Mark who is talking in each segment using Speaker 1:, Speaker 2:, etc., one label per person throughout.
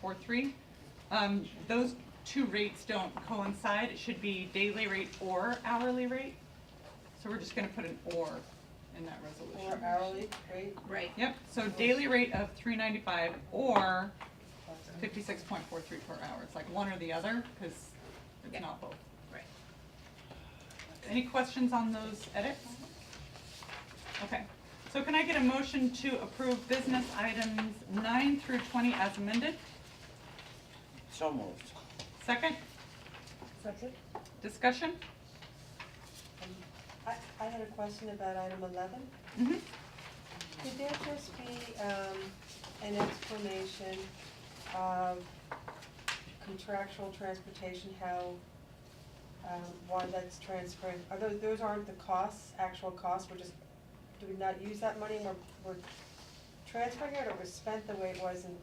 Speaker 1: four three. Um, those two rates don't coincide, it should be daily rate or hourly rate. So we're just gonna put an or in that
Speaker 2: Or
Speaker 1: resolution.
Speaker 2: hourly rate,
Speaker 3: Right.
Speaker 1: Yep, so daily rate of three ninety-five or fifty-six point four three per hour, it's like one or the other, cause
Speaker 3: Yeah.
Speaker 1: it's not both.
Speaker 3: Right.
Speaker 1: Any questions on those edits? Okay, so can I get a motion to approve business items nine through twenty as amended?
Speaker 4: So moved.
Speaker 1: Second,
Speaker 2: second?
Speaker 1: discussion?
Speaker 2: Um, I, I had a question about item eleven.
Speaker 1: Mm-hmm.
Speaker 2: Could there just be, um, an explanation of contractual transportation, how, um, why that's transferring? Are those, those aren't the costs, actual costs, we're just, do we not use that money, we're, we're transferring it, or we spent the way it was in,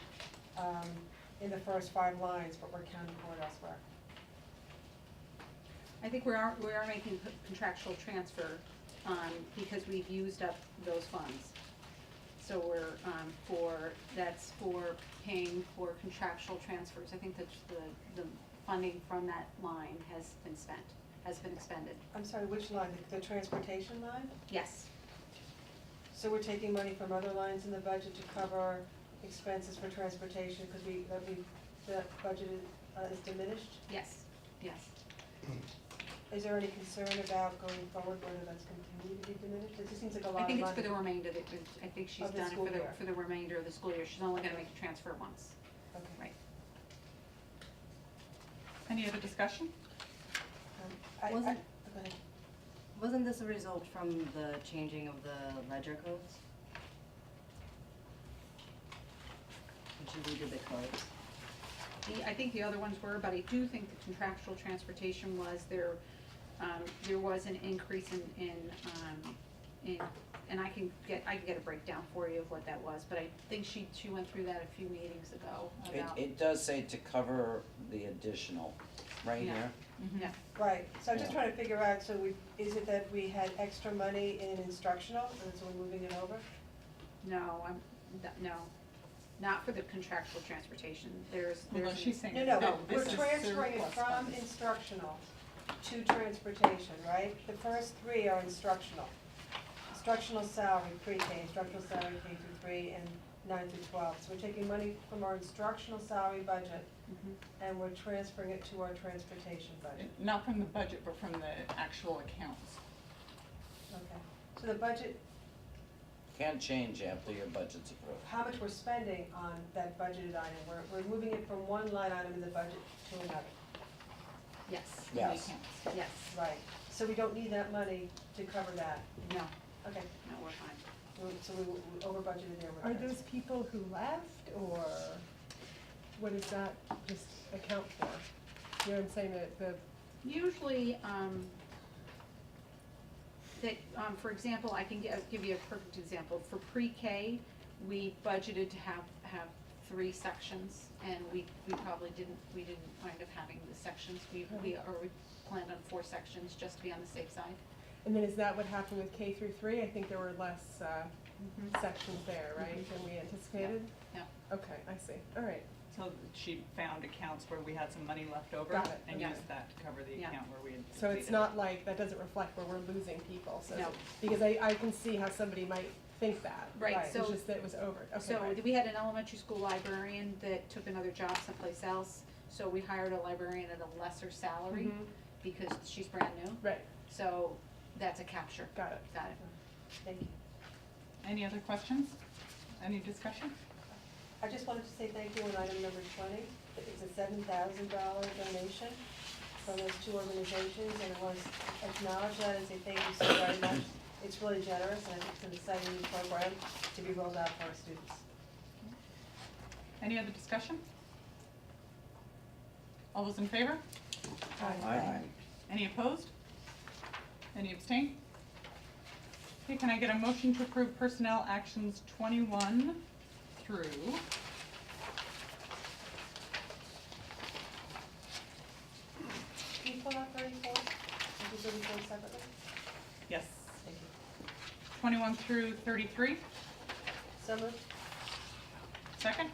Speaker 2: um, in the first five lines, but we're counting for it elsewhere?
Speaker 3: I think we are, we are making co- contractual transfer, um, because we've used up those funds. So we're, um, for, that's for paying for contractual transfers. I think that the, the funding from that line has been spent, has been expended.
Speaker 2: I'm sorry, which line, The- the transportation line?
Speaker 3: Yes,
Speaker 2: So we're taking money from other lines in the budget to cover expenses for transportation, because we, that we, that budget is, uh, is diminished?
Speaker 3: yes, yes.
Speaker 2: Is there any concern about going forward whether that's continuing to be diminished? It just seems like a lot
Speaker 3: I
Speaker 2: of money.
Speaker 3: think it's for the remainder, that, I think she's
Speaker 2: Of the
Speaker 3: done it
Speaker 2: school
Speaker 3: for the,
Speaker 2: year.
Speaker 3: for the remainder of the school year. She's only gonna make a transfer once,
Speaker 2: Okay.
Speaker 3: right?
Speaker 1: Any other discussion?
Speaker 2: Um, I, I, go
Speaker 5: Wasn't-
Speaker 2: ahead.
Speaker 5: Wasn't this a result from the changing of the ledger codes? Which you redid the codes.
Speaker 3: The, I think the other ones were, but I do think the contractual transportation was there, um, there was an increase in, in, um, in, and I can get, I can get a breakdown for you of what that was, but I think she, she went through that a few meetings ago
Speaker 4: It,
Speaker 3: about,
Speaker 4: it does say to cover the additional, right
Speaker 3: Yeah.
Speaker 4: here.
Speaker 1: Mm-hmm.
Speaker 3: yeah,
Speaker 2: Right, so I'm just
Speaker 4: Yeah.
Speaker 2: trying to figure out, so we, is it that we had extra money in instructional, and so we're moving it over?
Speaker 3: no, I'm, th- no, not for the contractual transportation, there's, there's.
Speaker 1: Although she's saying.
Speaker 2: No, no,
Speaker 3: No,
Speaker 2: we're
Speaker 1: this is
Speaker 2: transferring it
Speaker 1: surplus
Speaker 2: from
Speaker 1: funds.
Speaker 2: instructional to transportation, right? The first three are instructional. Instructional salary, pre-K, instructional salary K through three, and nine through twelve. So we're taking money from our instructional salary budget,
Speaker 3: Mhm.
Speaker 2: and we're transferring it to our transportation budget.
Speaker 1: Not from the budget, but from the actual accounts.
Speaker 2: Okay. So the budget,
Speaker 4: Can't change after your budget's approved.
Speaker 2: how much we're spending on that budgeted item, we're, we're moving it from one line item in the budget to another.
Speaker 3: Yes,
Speaker 1: from the
Speaker 4: Yes.
Speaker 1: accounts.
Speaker 3: yes,
Speaker 2: Right. So we don't need that money to cover that.
Speaker 3: no, no,
Speaker 2: Okay,
Speaker 3: we're fine.
Speaker 2: we- so we, we over budgeted there. we're
Speaker 6: Are
Speaker 2: transferring.
Speaker 6: those people who left, or what does that just account for? You know what I'm saying, that the,
Speaker 3: Usually, um, that, um, for example, I can give, give you a perfect example, for pre-K, we budgeted to have, have three sections, and we, we probably didn't, we didn't wind up having the sections, we,
Speaker 6: Mm-hmm.
Speaker 3: we, or we planned on four sections, just to be on the safe side.
Speaker 6: and then is that what happened with K through three? I think there were less uh, sections there, right, than we anticipated?
Speaker 3: Mm-hmm. Yeah.
Speaker 6: Okay, I see, all right.
Speaker 1: So she found accounts where we had some money left over
Speaker 6: Got it,
Speaker 1: and
Speaker 3: okay.
Speaker 1: used that to cover the
Speaker 3: Yeah.
Speaker 1: account where we had
Speaker 6: So it's
Speaker 1: depleted.
Speaker 6: not like, that doesn't reflect where we're losing people, so,
Speaker 3: No.
Speaker 6: because I, I can see how somebody might think that.
Speaker 3: Right,
Speaker 2: Right,
Speaker 6: It's
Speaker 3: so,
Speaker 6: just that it was over, okay,
Speaker 3: so
Speaker 6: right.
Speaker 3: we had an elementary school librarian that took another job someplace else, so we hired a librarian at a lesser salary,
Speaker 6: Mhm.
Speaker 3: because she's brand new,
Speaker 6: Right,
Speaker 3: so that's a capture,
Speaker 6: got it.
Speaker 3: got it.
Speaker 2: Thank you.
Speaker 1: Any other questions? Any discussion?
Speaker 2: I just wanted to say thank you on item number twenty. It's a seven thousand dollar donation from those two organizations, and I want to acknowledge that and say thank you so very much. It's really generous, and I think it's an exciting new program to be rolled out for our students.
Speaker 1: Any other discussion? All those in favor?
Speaker 4: Aye.
Speaker 1: Any opposed? Any abstain? Okay, can I get a motion to approve personnel actions twenty-one through?
Speaker 2: Can you pull out thirty-four? Can you do thirty-four separately?
Speaker 1: Yes,
Speaker 2: Thank you.
Speaker 1: twenty-one through thirty-three,
Speaker 2: So moved.
Speaker 1: second?